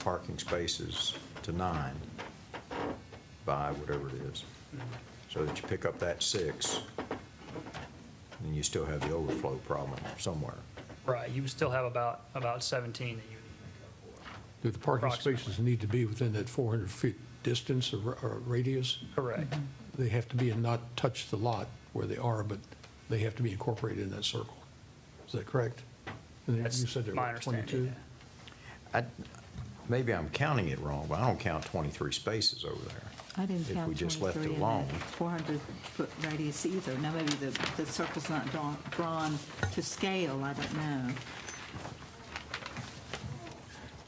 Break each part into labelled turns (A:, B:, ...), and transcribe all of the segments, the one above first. A: parking spaces to nine by whatever it is. So that you pick up that six, and you still have the overflow problem somewhere.
B: Right, you would still have about, about 17 that you would make
C: Do the parking
B: Approximately.
C: spaces need to be within that 400 feet distance or or radius?
B: up for. Correct,
C: They have to be and not touch the lot where they are, but they have to be incorporated in that circle. Is that correct? And you
B: that's
C: said there
B: my
C: were 22?
B: understanding.
A: I, maybe I'm counting it wrong, but I don't count 23 spaces over there.
D: I didn't
A: If
D: count 23.
A: we just left it
D: in that
A: alone.
D: 400-foot radius either. Now, maybe the, the circle's not drawn, drawn to scale, I don't know.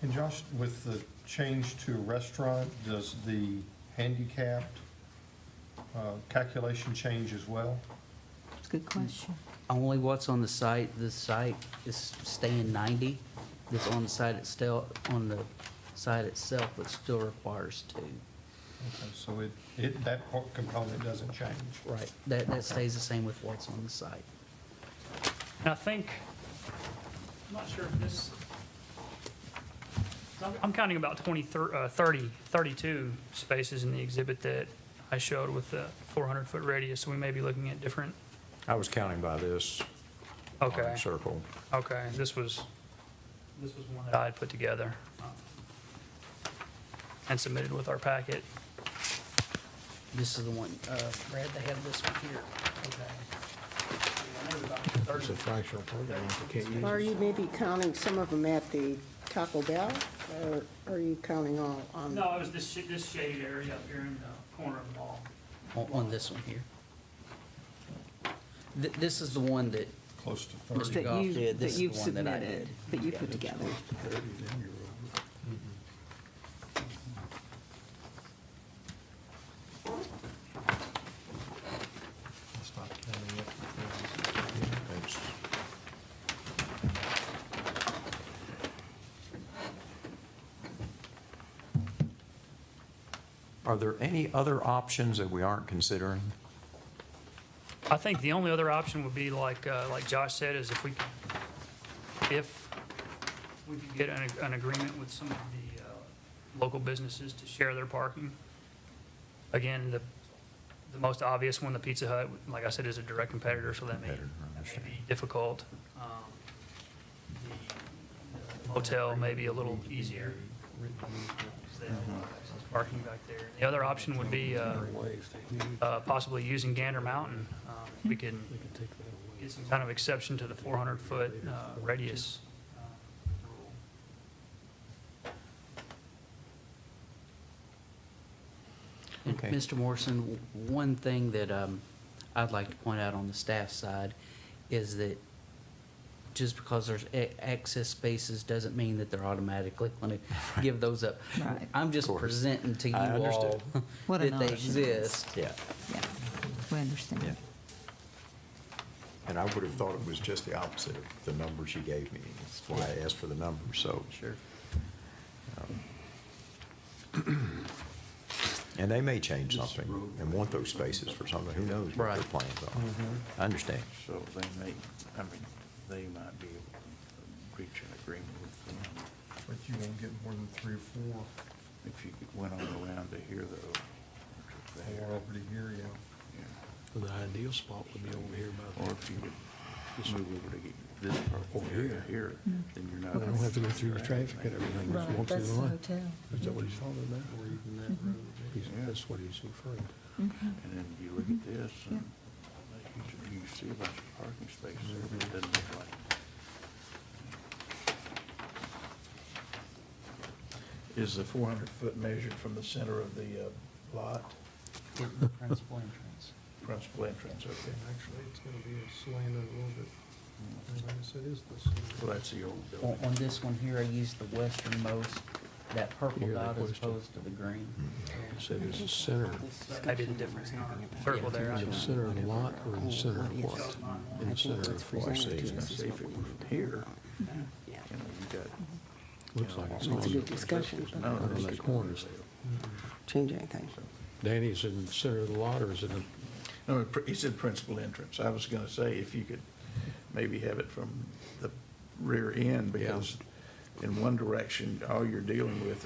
E: And Josh, with the change to restaurant, does the handicapped uh, calculation change as well?
D: It's a good question.
F: Only what's on the site, the site is staying 90. That's on the site itself, on the site itself, but still requires two.
E: Okay, So it, it, that part- component doesn't change?
F: Right. That, that stays the same with what's on the site.
B: And I think, I'm not sure if this, I'm- I'm counting about 23, uh, 30, 32 spaces in the exhibit that I showed with the 400-foot radius, so we may be looking at different,
A: I was counting by this Oh,
B: okay,
A: circle.
B: okay, this was, this was one that I had put together um, and submitted with our packet.
F: This is the one, uh, Brad, they have this one here.
C: It's a fractional parking lot, you can't use
G: Are
C: it.
G: you maybe counting some of them at the Taco Bell, or are you counting all on?
B: No, it was this, sh- this shaded area up here in the corner of the mall.
F: On, on this one here. Th- This is the one that,
E: Close to 30?
F: Mr.
D: That
F: Goff
D: you-
F: did, this is
D: you've
F: the one that I
D: submitted,
F: did.
D: That you put together.
A: It's- Are there any other options that we aren't considering?
B: I think the only other option would be like, uh, like Josh said, is if we, could- if we could get an, an agreement with some of the, uh, local businesses to share their parking. Again, the, the most obvious one, the Pizza Hut, like I said, is a direct competitor, so that may, that
A: Competitor, I
B: may
A: understand.
B: be difficult. Um, the Hotel may be a little easier. 'cause they have a lot of access Parking back there. The other option would be, uh, uh, possibly using Gander Mountain. Um, We can get some kind of exception to the 400-foot radius uh, rule.
F: And
A: Okay.
F: Mr. Morrison, w- one thing that um, I'd like to point out on the staff side is that just because there's a- access spaces doesn't mean that they're automatically going to give those up.
D: Right.
F: I'm just
A: Of course.
F: presenting to you
A: I
F: all
A: understood.
D: What an
F: that they
D: honor.
F: exist.
A: Yeah.
D: Yeah, we understand.
A: And I would have thought it was just the opposite of the numbers you gave me. That's why I asked for the numbers, so. Um,
F: Sure.
A: And they may change something and want those spaces for something. Who knows what their
F: Right. Mm-hmm.
A: plans are? I understand.
H: So they may, I mean, they might be able to reach an agreement with them.
E: But you won't get more than three or four,
H: If you went on around to here though.
E: or over to here, yeah.
H: yeah.
C: The ideal spot would be over here by
H: Or
C: the,
H: if you could move over to get this part
C: Over
H: here,
C: here.
H: here, then you're not.
C: but I don't have to go through the traffic and everything. Just walk through the line. Is that what he's talking about? He's- That's what he's referring to.
H: And then you look at this and you you see a bunch of parking spaces there, but it doesn't look like.
I: Is the 400-foot measured from the center of the uh, lot,
F: Principal entrance.
I: principal entrance, okay?
E: Actually, it's going to be slanted a little bit. Yes, it is this.
H: Well, that's the old
F: On,
H: building.
F: on this one here, I used the westernmost, that purple
C: Here, that
F: dot as
C: question.
F: opposed to the green.
A: Mm-hmm.
C: Said it's the center,
B: Maybe the difference in our circle there. I
C: the
B: don't know.
C: center of the lot or in the center of what? In the center of what?
H: See if it was here,
G: Yeah,
H: you know, you got.
C: Looks like it's
G: It's a
C: on,
G: good discussion, but
H: none of
C: on
H: this
C: the
H: is-
C: corners.
I: Mm-hmm.
G: change anything.
C: Danny's in the center of the lot or is it in
I: No, pr- he said principal entrance. I was going to say if you could maybe have it from the rear end because in one direction, all you're dealing with